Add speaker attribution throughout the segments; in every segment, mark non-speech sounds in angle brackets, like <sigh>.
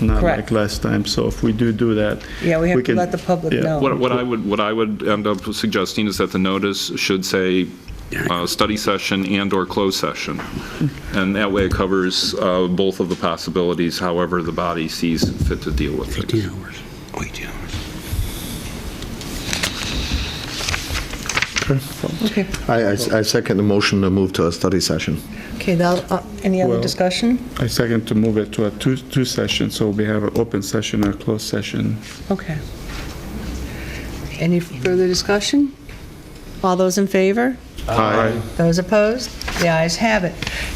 Speaker 1: not
Speaker 2: Correct.
Speaker 1: like last time. So if we do do that.
Speaker 2: Yeah, we have to
Speaker 1: can-
Speaker 2: let the public
Speaker 1: yeah.
Speaker 2: know.
Speaker 3: What what I would, what I would end up suggesting is that the notice should say, uh, study session and/or closed session. And that way it covers uh, both of the possibilities, however the body sees fit to deal with it.
Speaker 4: 18 hours. Oh, 18 hours.
Speaker 2: Okay,
Speaker 5: I, I- I second the motion to move to a study session.
Speaker 2: okay, now, uh, any other
Speaker 1: Well-
Speaker 2: discussion?
Speaker 1: I second to move it to a two, two session, so we have an open session and a closed session.
Speaker 2: Okay. Any further discussion? All those in favor?
Speaker 1: Aye.
Speaker 2: Those opposed? The ayes have it.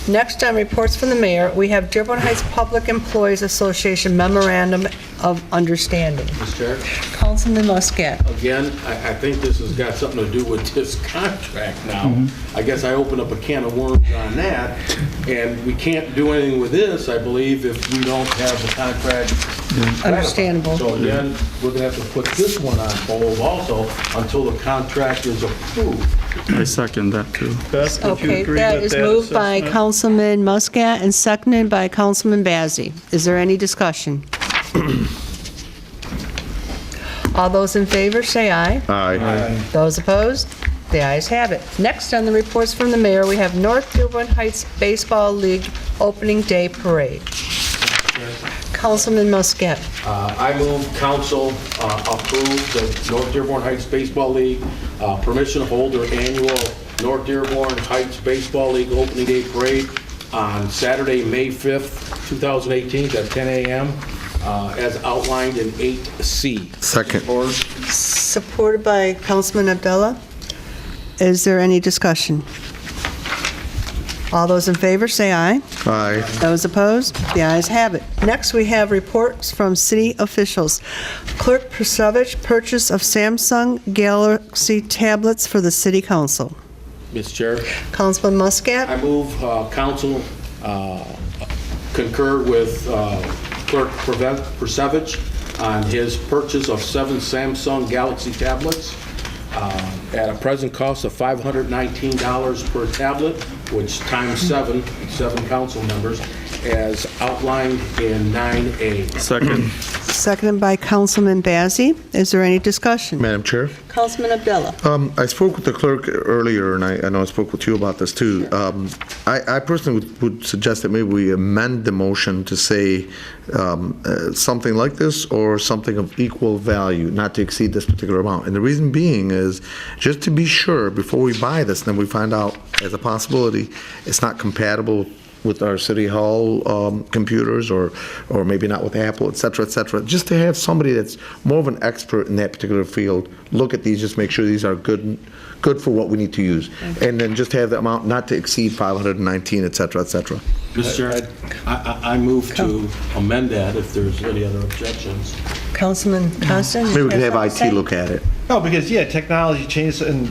Speaker 2: Next on reports from the mayor, we have Dearborn Heights Public Employees Association Memorandum of Understanding.
Speaker 6: Mr. Chair,
Speaker 2: Councilman Muscat.
Speaker 6: again, I, I think this has got something to do with this contract now. I guess I opened up a can of worms on that, and we can't do anything with this, I believe, if we don't have the contract. ratified.
Speaker 2: Understandable.
Speaker 6: So again, we're gonna have to put this one on hold also until the contract is approved.
Speaker 1: I second that too.
Speaker 2: Okay, that is moved by Councilman Muscat and seconded by Councilman Bazey. Is there any discussion? <clears throat> All those in favor, say aye.
Speaker 5: Aye.
Speaker 2: Those opposed? The ayes have it. Next on the reports from the mayor, we have North Dearborn Heights Baseball League Opening Day Parade. Councilman Muscat.
Speaker 6: Uh, I move council uh, approve the North Dearborn Heights Baseball League uh, permission to hold their annual North Dearborn Heights Baseball League Opening Day Parade on Saturday, May 5th, 2018, at 10 a.m., uh, as outlined in 8C.
Speaker 5: Second.
Speaker 6: Or
Speaker 2: Supported by Councilman Abdullah. Is there any discussion? All those in favor, say aye.
Speaker 5: Aye.
Speaker 2: Those opposed? The ayes have it. Next, we have reports from city officials. Clerk Persovich, purchase of Samsung Galaxy tablets for the city council.
Speaker 6: Ms. Chair?
Speaker 2: Councilman Muscat?
Speaker 6: I move uh, council uh, concur with uh, Clerk Preve- Persevich on his purchase of seven Samsung Galaxy tablets uh, at a present cost of $519 per tablet, which times seven, seven council members, as outlined in 9A.
Speaker 1: Second.
Speaker 2: Seconded by Councilman Bazey. Is there any discussion?
Speaker 5: Madam Chair?
Speaker 2: Councilman Abdullah?
Speaker 5: Um, I spoke with the clerk earlier, and I, I know I spoke with you about this too. Um, I, I personally would, would suggest that maybe we amend the motion to say um, uh, something like this or something of equal value, not to exceed this particular amount. And the reason being is just to be sure before we buy this, and then we find out as a possibility it's not compatible with our city hall um, computers or, or maybe not with Apple, et cetera, et cetera. Just to have somebody that's more of an expert in that particular field, look at these, just make sure these are good, good for what we need to use. And then just have the amount not to exceed 519, et cetera, et cetera.
Speaker 6: Mr. Chair, I- I I move to amend that if there's any other objections.
Speaker 2: Councilman Constant?
Speaker 5: Maybe we could have IT look at it.
Speaker 7: No, because, yeah, technology changes, and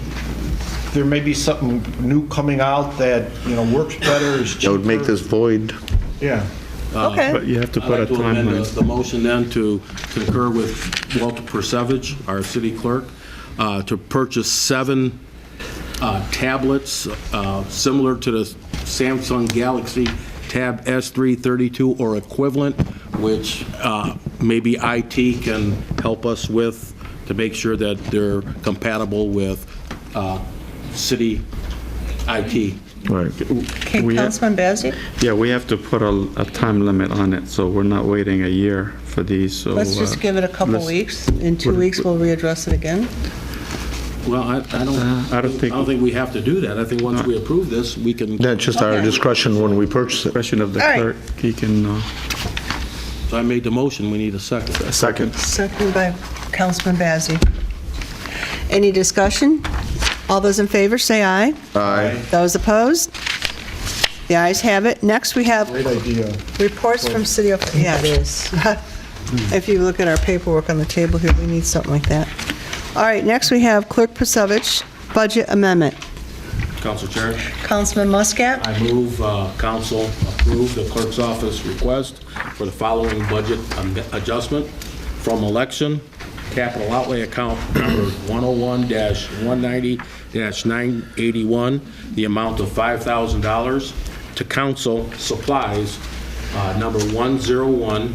Speaker 7: there may be something new coming out that, you know, works better, is
Speaker 5: That would make
Speaker 7: cheaper.
Speaker 5: this void.
Speaker 7: Yeah.
Speaker 1: But
Speaker 2: Okay,
Speaker 1: you have to
Speaker 6: I'd
Speaker 1: put a
Speaker 6: like to amend the-
Speaker 1: timeline.
Speaker 6: the motion then to concur with Walter Persevich, our city clerk, uh, to purchase seven uh, tablets uh, similar to the Samsung Galaxy Tab S332 or equivalent, which uh, maybe IT can help us with to make sure that they're compatible with uh, city IT.
Speaker 5: Right.
Speaker 2: Okay,
Speaker 1: we have-
Speaker 2: Councilman Bazey?
Speaker 1: Yeah, we have to put a, a time limit on it, so we're not waiting a year for these, so.
Speaker 2: Let's just
Speaker 1: uh,
Speaker 2: give it a couple
Speaker 1: let's-
Speaker 2: weeks. In two
Speaker 1: we're-
Speaker 2: weeks, we'll readdress it again.
Speaker 6: Well, I I don't,
Speaker 1: Uh, I don't think-
Speaker 6: I don't think we have to do that. I think once we approve this, we can.
Speaker 5: That's just our
Speaker 2: Okay.
Speaker 5: discretion when we purchase it.
Speaker 1: Question of the
Speaker 2: All right.
Speaker 1: clerk, he can, uh,
Speaker 6: So I made the motion, we need a second.
Speaker 5: Second.
Speaker 2: Seconded by Councilman Bazey. Any discussion? All those in favor, say aye.
Speaker 5: Aye.
Speaker 2: Those opposed? The ayes have it. Next, we have
Speaker 7: Great idea.
Speaker 2: reports from city, of- yeah, it is. <laughs> If you look at our paperwork on the table here, we need something like that. All right, next, we have Clerk Pasevich, budget amendment.
Speaker 6: Council Chair,
Speaker 2: Councilman Muscat?
Speaker 6: I move uh, council approve the clerk's office request for the following budget am- adjustment from election, capital outlay account number 101-190-981, the amount of $5,000, to council supplies, uh, number 101